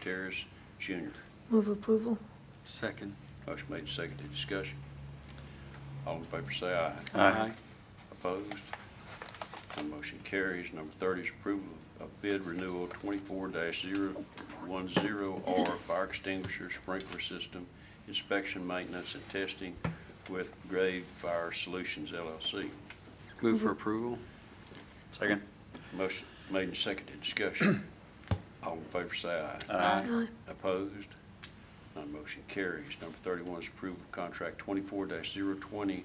Terrace Jr. Move approval. Second. Motion made, seconded, discussion. All in favor say aye. Aye. Opposed? None motion carries. Number 30 is approval of bid renewal 24-010R Fire Extinguisher Sprinkler System Inspection, Maintenance, and Testing with Grade Fire Solutions LLC. Move for approval? Second. Motion made and seconded, discussion. All in favor say aye. Aye. Aye. Opposed? None motion carries. Number 31 is approval of contract 24-020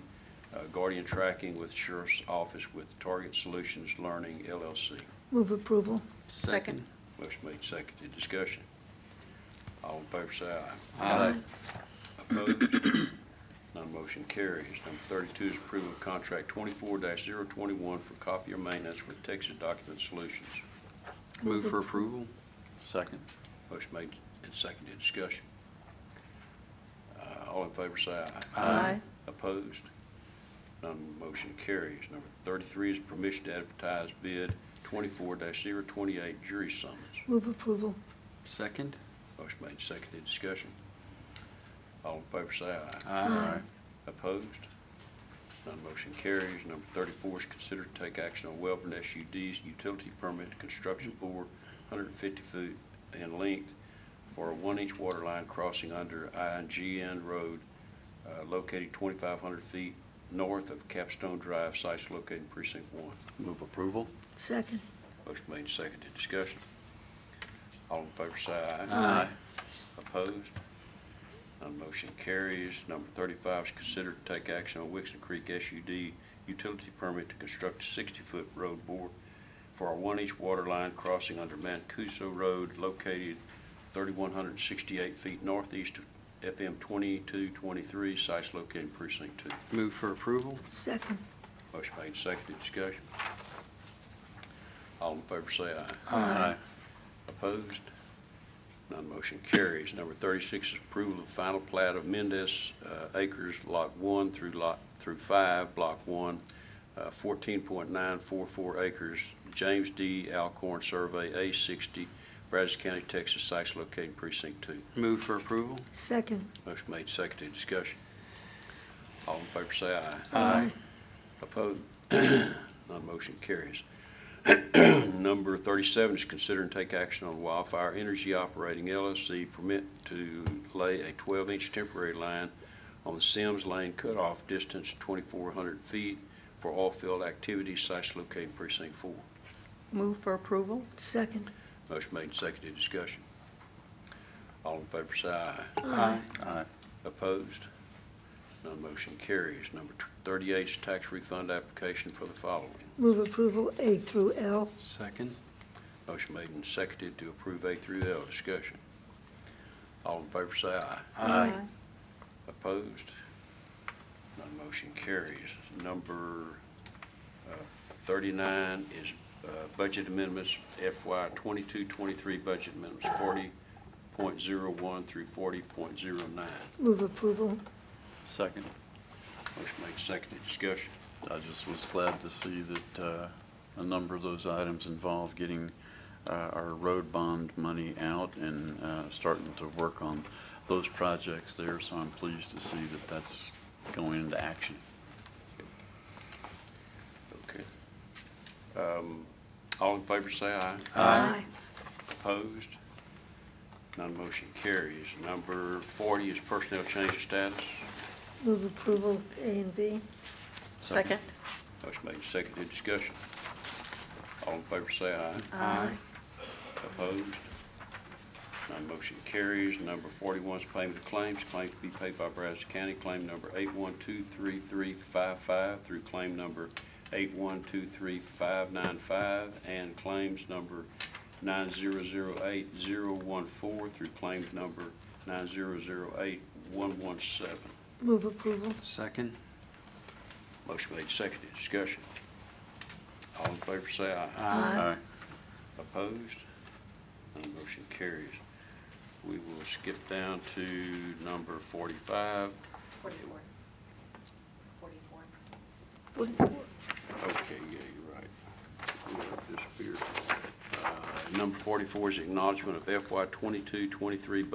uh, Guardian Tracking with Sheriff's Office with Target Solutions Learning LLC. Move approval. Second. Motion made, seconded, discussion. All in favor say aye. Aye. Opposed? None motion carries. Number 32 is approval of contract 24-021 for copier maintenance with Texas Document Solutions. Move for approval? Second. Motion made and seconded, discussion. Uh, All in favor say aye. Aye. Opposed? None motion carries. Number 33 is permission to advertise bid 24-028 jury summons. Move approval. Second. Motion made, seconded, discussion. All in favor say aye. Aye. Opposed? None motion carries. Number 34 is consider to take action on Welborn SUD's utility permit to construction bore 150 feet in length for a one-inch water line crossing under IGN Road uh, located 2,500 feet north of Capstone Drive, sites located in precinct one. Move approval? Second. Motion made, and seconded, discussion. All in favor say aye. Aye. Opposed? None motion carries. Number 35 is considered to take action on Wixon Creek SUD utility permit to construct a 60-foot road board for a one-inch water line crossing under Mancuso Road located 3,168 feet northeast of FM 2223, sites located in precinct 2. Move for approval? Second. Motion made, seconded, discussion. All in favor say aye. Aye. Opposed? None motion carries. Number 36 is approval of final plat of Mendez uh, Acres Lot 1 through Lot, through 5, Block 1, uh, 14.944 acres, James D. Alcorn Survey, A60, Brazos County, Texas, sites located in precinct 2. Move for approval? Second. Motion made, seconded, discussion. All in favor say aye. Aye. Opposed? Non-motion carries. Number 37 is consider and take action on Wildfire Energy Operating LLC permit to lay a 12-inch temporary line on the Sims Lane cutoff distance 2,400 feet for off-field activities sites located in precinct four. Move for approval? Second. Motion made, seconded, discussion. All in favor, say aye. Aye. Aye. Opposed? Non-motion carries. Number 38 is tax refund application for the following. Move approval A through L. Second. Motion made and seconded to approve A through L. Discussion. All in favor say aye. Aye. Opposed? None motion carries. Number uh, 39 is uh, budget amendments FY 22-23 budget amendments 40.01 through 40.09. Move approval. Second. Motion made, seconded. Discussion. I just was glad to see that uh, a number of those items involve getting uh, our road bond money out and uh, starting to work on those projects there, so I'm pleased to see that that's going into action. Okay. Um, All in favor say aye. Aye. Opposed? None motion carries. Number 40 is personnel change of status. Move approval A and B. Second? Motion made, and seconded, discussion. All in favor say aye. Aye. Opposed? None motion carries. Number 41 is payment of claims. Claims to be paid by Brazos County, claim number 8123355 through claim number 8123595, and claims number 9008014 through claim number 9008117. Move approval. Second. Motion made, seconded. Discussion. All in favor, say aye. Aye. Opposed? None motion carries. We will skip down to number 45. Forty-four. Forty-four. Okay, yeah, you're right. We have disappeared. Uh, Number forty-four is acknowledgement of FY twenty-two, twenty-three